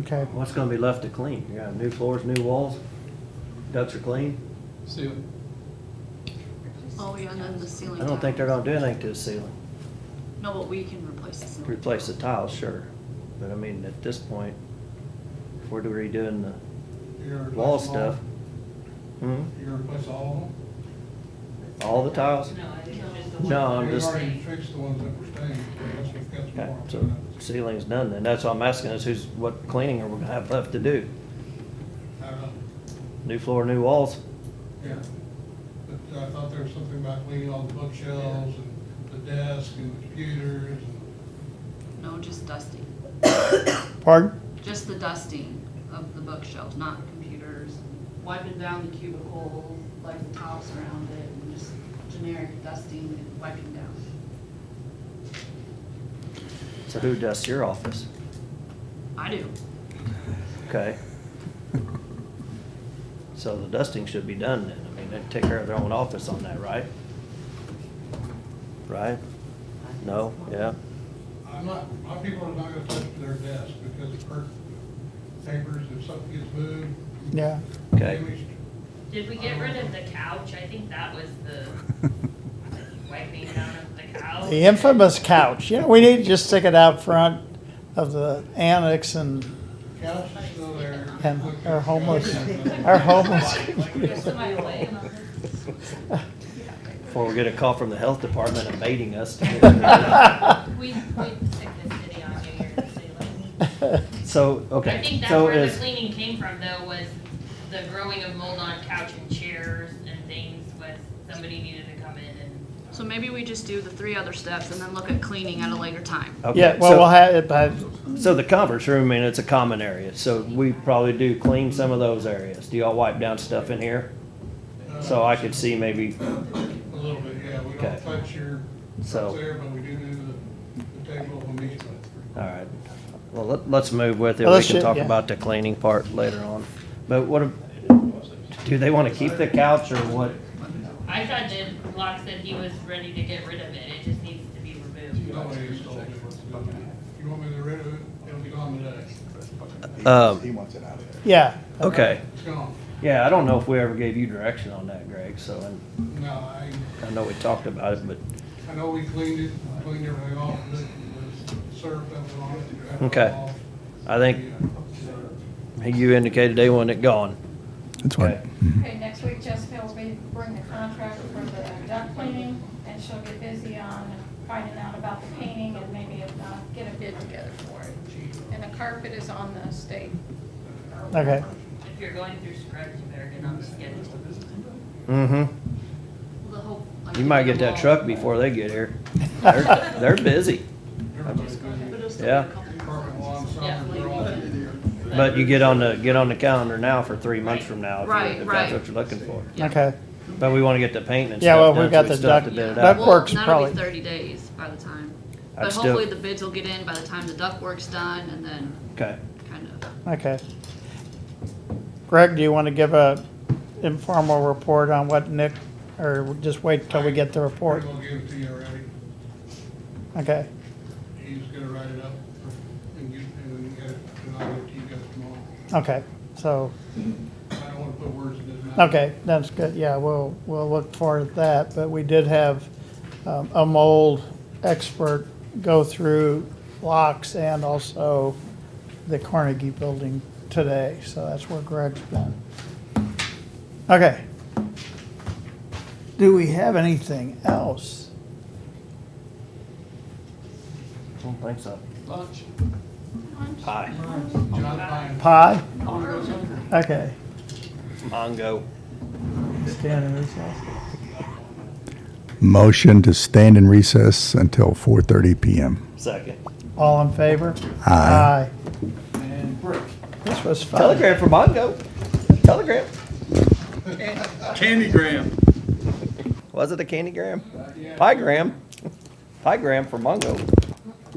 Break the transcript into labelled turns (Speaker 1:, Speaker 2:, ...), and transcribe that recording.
Speaker 1: Okay,
Speaker 2: What's gonna be left to clean? You got new floors, new walls, ducts are clean.
Speaker 3: See,
Speaker 4: Oh, yeah, and then the ceiling.
Speaker 2: I don't think they're gonna do anything to the ceiling.
Speaker 4: tiles. No, but we can replace the ceiling.
Speaker 2: Replace the tiles, sure, but I mean, at this point, if we're redoing the
Speaker 3: you replace all
Speaker 2: wall
Speaker 3: of
Speaker 2: stuff.
Speaker 3: them?
Speaker 2: Hmm,
Speaker 3: You replace all
Speaker 2: all the tiles?
Speaker 5: No, I think it's just the
Speaker 2: Oh. No,
Speaker 5: one.
Speaker 3: of
Speaker 2: I'm
Speaker 5: where
Speaker 3: them? We've
Speaker 2: just-
Speaker 5: it's
Speaker 3: already
Speaker 5: staying.
Speaker 3: fixed the ones that were staying, so that's what's got some
Speaker 2: Okay,
Speaker 3: more
Speaker 2: so
Speaker 3: options.
Speaker 2: ceiling's done then, that's what I'm asking is who's, what cleaning are we gonna have left to do?
Speaker 3: I don't know.
Speaker 2: New floor, new walls?
Speaker 3: Yeah, but uh, I thought there was something about cleaning all the bookshelves and the desk and the computers and,
Speaker 4: No, just dusting,
Speaker 1: pardon?
Speaker 4: just the dusting of the bookshelves, not computers.
Speaker 5: Wiping down the cubicle, like the tops around it, and just generic dusting and wiping down.
Speaker 2: So who dusts your office?
Speaker 4: I do.
Speaker 2: Okay. So the dusting should be done then, I mean, they take care of their own office on that, right? Right? No, yeah,
Speaker 3: I'm not, my people are not gonna touch their desk because it hurt papers if something gets moved.
Speaker 1: Yeah.
Speaker 2: Okay.
Speaker 3: damaged.
Speaker 6: Did we get rid of the couch? I think that was the wiping down of the couch.
Speaker 1: The infamous couch, you know, we need to just stick it out front of the annex and
Speaker 3: Couch is still there.
Speaker 1: And our homeless-
Speaker 3: Our
Speaker 1: our homeless.
Speaker 6: There's somebody laying on it.
Speaker 2: before we get a call from the health department invading us. to-
Speaker 6: We, we took the city on New Year's ceiling.
Speaker 2: So,
Speaker 6: I
Speaker 2: okay,
Speaker 6: think that's
Speaker 2: so
Speaker 6: where the
Speaker 2: is,
Speaker 6: cleaning came from though, was the growing of mold on couch and chairs and things was, somebody needed to come in and.
Speaker 4: So maybe we just do the three other steps and then look at cleaning at a later time.
Speaker 2: okay,
Speaker 1: Yeah, well,
Speaker 2: so-
Speaker 1: we'll have it by,
Speaker 2: So the conference room, I mean, it's a common area, so we probably do clean some of those areas. Do y'all wipe down stuff in here? So I could see maybe,
Speaker 3: Uh, A little bit, yeah, we
Speaker 2: Okay.
Speaker 3: don't touch your,
Speaker 2: So-
Speaker 3: what's there, but we do do the, the table of amusement.
Speaker 2: all right. Well, let, let's move with it.
Speaker 1: Well,
Speaker 2: We
Speaker 1: let's
Speaker 2: can
Speaker 1: ju-
Speaker 2: talk
Speaker 1: yeah.
Speaker 2: about the cleaning part later on. But what, ab- do they want to keep the couch or what?
Speaker 6: I thought that Locke said he was ready to get rid of it, it just needs to be removed.
Speaker 3: Nobody has told me what to do. You want me to get rid of it, it'll be gone today,
Speaker 2: Um,
Speaker 7: He wants it out of there.
Speaker 1: yeah.
Speaker 2: okay,
Speaker 3: it's gone.
Speaker 2: yeah, I don't know if we ever gave you direction on that, Greg, so, and
Speaker 3: No, I,
Speaker 2: I know we talked about it, but,
Speaker 3: I know we cleaned it, cleaned everything off, but it was served up and on it.
Speaker 2: Okay. I think you indicated they wanted it gone.
Speaker 7: That's
Speaker 2: Okay.
Speaker 8: Okay, next week Jessica will be, bring the contract for the duct cleaning, and she'll get busy on finding out about the painting and maybe if not, get a bid together for it. And the carpet is on the state. uh,
Speaker 1: Okay,
Speaker 6: If you're going through scrubs, you better get on the schedule.
Speaker 2: Mm-hmm.
Speaker 4: The whole, like,
Speaker 2: You might get that truck before they get here. They're, they're busy.
Speaker 4: But it'll still be a
Speaker 2: Yeah.
Speaker 4: couple of
Speaker 3: Carpet lawn,
Speaker 4: months.
Speaker 3: summer, they're all in.
Speaker 2: But you get on the, get on the calendar now for three months from now. if you-
Speaker 4: Right,
Speaker 2: If that's
Speaker 4: right.
Speaker 2: what you're looking for.
Speaker 4: Yeah.
Speaker 1: okay.
Speaker 2: But we wanna get the paint and
Speaker 1: Yeah, well,
Speaker 2: stuff
Speaker 1: we
Speaker 2: done, so
Speaker 1: got
Speaker 2: we
Speaker 1: the
Speaker 2: still have to
Speaker 1: duct-
Speaker 2: bid it
Speaker 1: Yeah.
Speaker 2: out.
Speaker 1: Duck works
Speaker 4: Well,
Speaker 1: probably-
Speaker 4: That'll be thirty days by the time,
Speaker 2: I'd
Speaker 4: but
Speaker 2: still-
Speaker 4: hopefully the bids will get in by the time the duck work's done and then
Speaker 2: Okay,
Speaker 4: kind of.
Speaker 1: Okay. Greg, do you want to give a informal report on what Nick, or just wait till we get the
Speaker 3: We're
Speaker 1: report?
Speaker 3: gonna give it to you already,
Speaker 1: Okay,
Speaker 3: he's gonna write it up and get, and get it, and I'll give it to you guys tomorrow.
Speaker 1: okay, so,
Speaker 3: I don't wanna put words in his mouth.
Speaker 1: okay, that's good, yeah, we'll, we'll look forward to that, but we did have um, a mold expert go through locks and also the Carnegie Building today, so that's where Greg's been. Okay. Do we have anything else?
Speaker 2: I don't think so.
Speaker 3: Lunch,
Speaker 2: Pie,
Speaker 3: John Pine.
Speaker 1: Pie?
Speaker 3: I'll go somewhere.
Speaker 1: Okay.
Speaker 2: Mongo.
Speaker 1: Stand in recess.
Speaker 7: Motion to stand in recess until 4:30 PM.
Speaker 2: Second.
Speaker 1: All in favor?
Speaker 7: Aye.
Speaker 1: Aye. This was fun.
Speaker 2: Telegram for Mongo. Telegram.
Speaker 9: Candygram.
Speaker 2: Was it a candygram?
Speaker 3: Yeah.
Speaker 2: Piegram. Piegram for Mongo.